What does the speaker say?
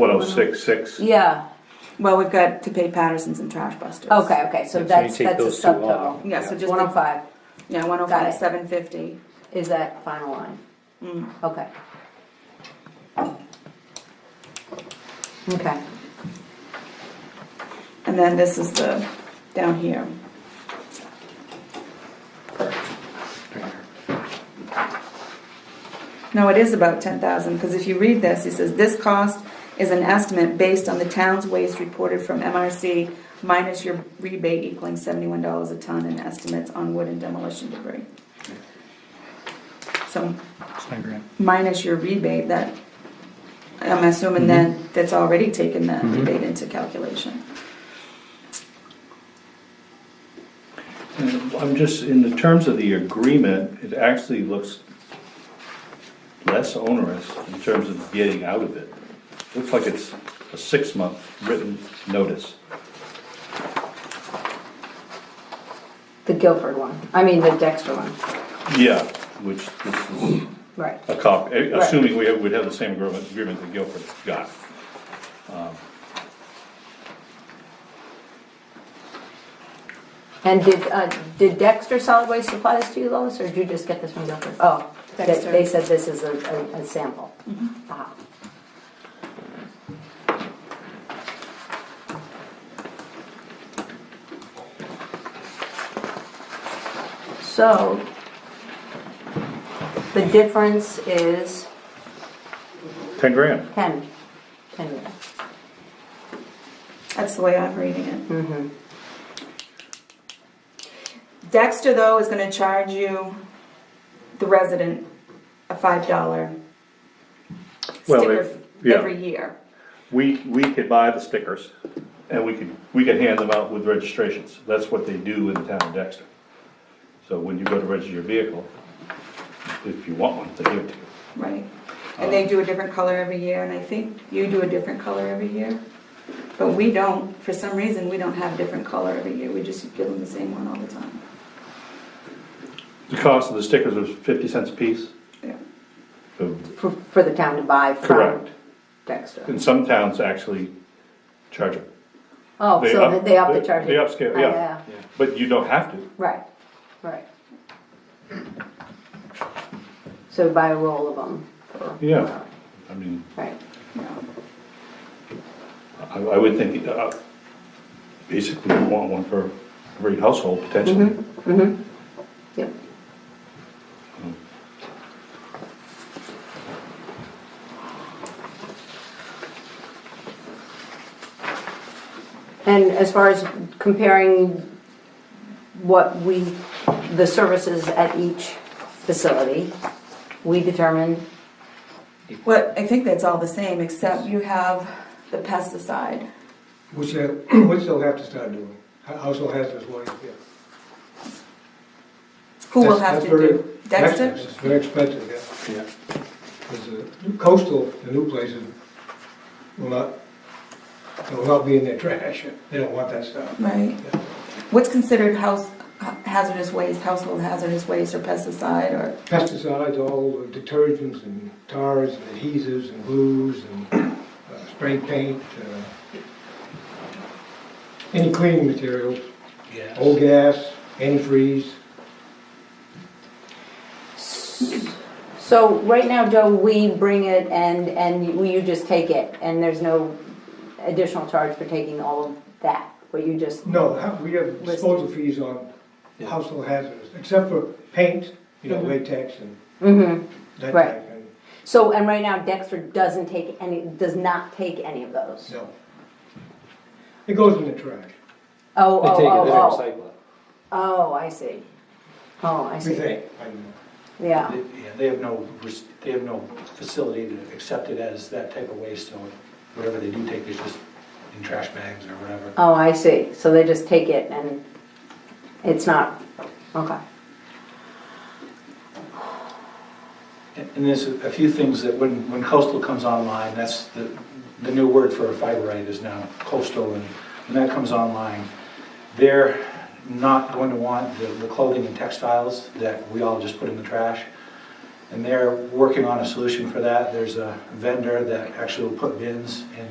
What else, oh six, six? Yeah, Well, we've got to pay Patterson's and Trash Busters. okay, okay, so you that's, take that's a those two off. subtotal. Yeah, so just One oh the, five yeah, one oh Got it. five, seven fifty. is that final line? Okay. Okay, And then this is the, down here. No, it is about ten thousand, because if you read this, he says, this cost is an estimate based on the town's waste reported from MRC minus your rebate equaling seventy-one dollars a ton and estimates on wood and demolition debris. So minus your rebate, that, I'm assuming that, that's already taken that rebate into calculation. I'm just, in the terms of the agreement, it actually looks less onerous in terms of getting out of it. Looks like it's a six-month written notice. the Guilford one, I mean the Dexter one, Yeah, which this is right. a copy, assuming we would have the same agreement, agreement that Guilford got. And did, uh, did Dexter Solid Waste supply this to you, Lois, or did you just get this from Guilford? Oh, they- Dexter. they said this is a, a- a sample. Ah. So, the difference is Ten grand. ten, ten grand. That's the way I'm reading it. Mm-hmm. Dexter, though, is gonna charge you, the resident, a five dollar Well, sticker if- yeah. every year. We, we could buy the stickers, and we could, we could hand them out with registrations, that's what they do in the town of Dexter. So when you go to register your vehicle, if you want one, they give it to you. Right, and Uh-huh. they do a different color every year, and I think you do a different color every year. But we don't, for some reason, we don't have different color every year, we just give them the same one all the time. The cost of the stickers was fifty cents a piece, Yeah. so- For, for the town to buy from correct, Dexter. and some towns actually charge it. Oh, so they up the charge. They upscale, Oh, yeah, but you don't have to, Right, right. So buy a roll of them. for- Yeah. I mean, Right, I, I would think, uh, basically you want one for every household potentially. Mm-hmm. yep. And as far as comparing what we, the services at each facility, we determined, Well, I think that's all the same, except you have the pesticide. Which they, which they'll have to start doing, Ho- household hazardous waste, yeah. Who will That's- have that's to very do? Dexter? expensive. It's very expensive, yeah. Yeah. Because the new coastal, the new places will not, will not be in their trash, they don't want that stuff. Right. What's considered house hazardous waste, household hazardous waste, or pesticide, or, Pesticides, all the detergents and tars and adhesives and glues and uh, spray paint, uh, any cleaning materials, old gas, antifreeze. so right now, Joe, we bring it and, and you- you just take it, and there's no additional charge for taking all of that, but you just, No, ha- we have disposal fees on household hazards, except for paint, you know, latex and mm-hmm. that Right. type. and- So, and right now Dexter doesn't take any, does not take any of those? No. It goes in the trash, Oh, They oh, take it to oh, oh, recycle oh, I see. Oh, I we see, think. I don't know. yeah, They- Yeah, they have no, res- they have no facility to accept it as that type of waste, so whatever they do take is just in trash bags or whatever. oh, I see, so they just take it and it's not, okay, And and there's a a few things that when, when coastal comes online, that's the, the new word for fiberite is now coastal, and when that comes online, they're not going to want the the clothing and textiles that we all just put in the trash. And they're working on a solution for that. There's a vendor that actually will put bins in